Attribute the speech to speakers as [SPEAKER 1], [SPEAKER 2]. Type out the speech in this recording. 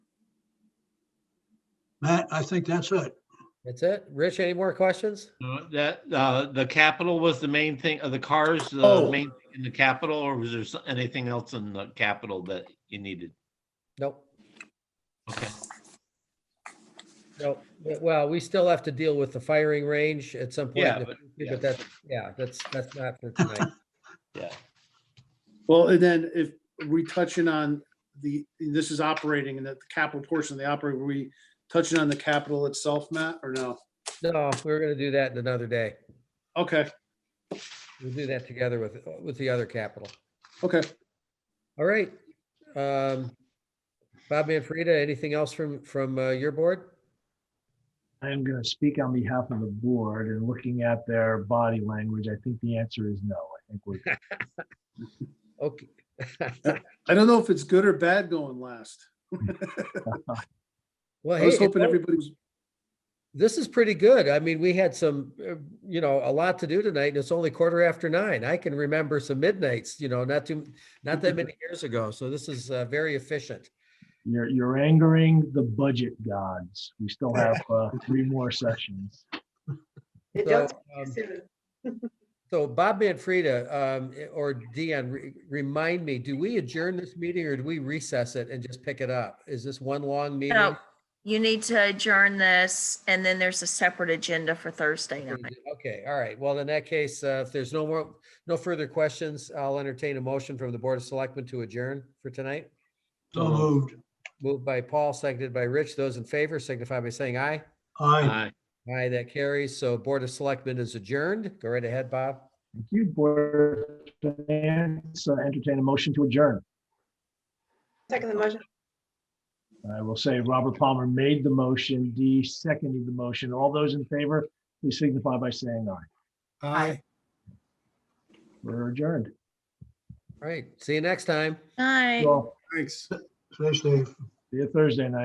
[SPEAKER 1] Matt, I think that's it.
[SPEAKER 2] That's it. Rich, any more questions?
[SPEAKER 3] Uh, That, uh, the capital was the main thing, uh, the cars, the
[SPEAKER 4] Oh.
[SPEAKER 3] main thing in the capital, or was there so- anything else in the capital that you needed?
[SPEAKER 2] Nope.
[SPEAKER 3] Okay,
[SPEAKER 2] Nope. Well, we still have to deal with the firing range at some point.
[SPEAKER 3] Yeah,
[SPEAKER 2] in the
[SPEAKER 3] but-
[SPEAKER 2] future,
[SPEAKER 3] yeah.
[SPEAKER 2] But that's, yeah, that's, that's not for tonight.
[SPEAKER 3] yeah,
[SPEAKER 4] Well, and then if we touching on the, this is operating and the capital portion of the operating, were we touching on the capital itself, Matt, or no?
[SPEAKER 2] No, we're gonna do that in another day.
[SPEAKER 4] Okay,
[SPEAKER 2] We'll do that together with, with the other capital.
[SPEAKER 4] okay.
[SPEAKER 2] All right. Um, Bob Manfreda, anything else from, from uh, your board?
[SPEAKER 5] I am going to speak on behalf of the board and looking at their body language, I think the answer is no. I think we're,
[SPEAKER 2] Okay.
[SPEAKER 4] I don't know if it's good or bad going last.
[SPEAKER 2] Well,
[SPEAKER 4] I
[SPEAKER 2] hey,
[SPEAKER 4] was
[SPEAKER 2] it-
[SPEAKER 4] hoping everybody was,
[SPEAKER 2] this is pretty good. I mean, we had some, uh, you know, a lot to do tonight and it's only quarter after nine. I can remember some midnights, you know, not too, not that many years ago. So this is uh, very efficient.
[SPEAKER 5] you're, you're angering the budget gods. We still have uh, three more sessions.
[SPEAKER 6] It
[SPEAKER 2] So,
[SPEAKER 6] does
[SPEAKER 2] um,
[SPEAKER 6] soon.
[SPEAKER 2] So Bob Manfreda, um, i- or Dion, re- remind me, do we adjourn this meeting or do we recess it and just pick it up? Is this one long meeting?
[SPEAKER 7] No, you need to adjourn this, and then there's a separate agenda for Thursday night.
[SPEAKER 2] Okay, all right. Well, in that case, uh, if there's no more, no further questions, I'll entertain a motion from the Board of Selectmen to adjourn for tonight.
[SPEAKER 1] So moved.
[SPEAKER 2] Moved by Paul, seconded by Rich. Those in favor signify by saying aye.
[SPEAKER 1] Aye.
[SPEAKER 3] aye.
[SPEAKER 2] Aye, that carries. So Board of Selectmen is adjourned. Go right ahead, Bob.
[SPEAKER 5] Thank you, board. Finance. Uh, Entertain a motion to adjourn.
[SPEAKER 6] Second the motion.
[SPEAKER 5] I will say Robert Palmer made the motion, Dee seconded the motion. All those in favor, please signify by saying aye.
[SPEAKER 4] aye.
[SPEAKER 5] We're adjourned.
[SPEAKER 2] All right, see you next time.
[SPEAKER 7] Night.
[SPEAKER 5] Well,
[SPEAKER 4] Thanks.
[SPEAKER 1] Stay safe.
[SPEAKER 5] see you Thursday night.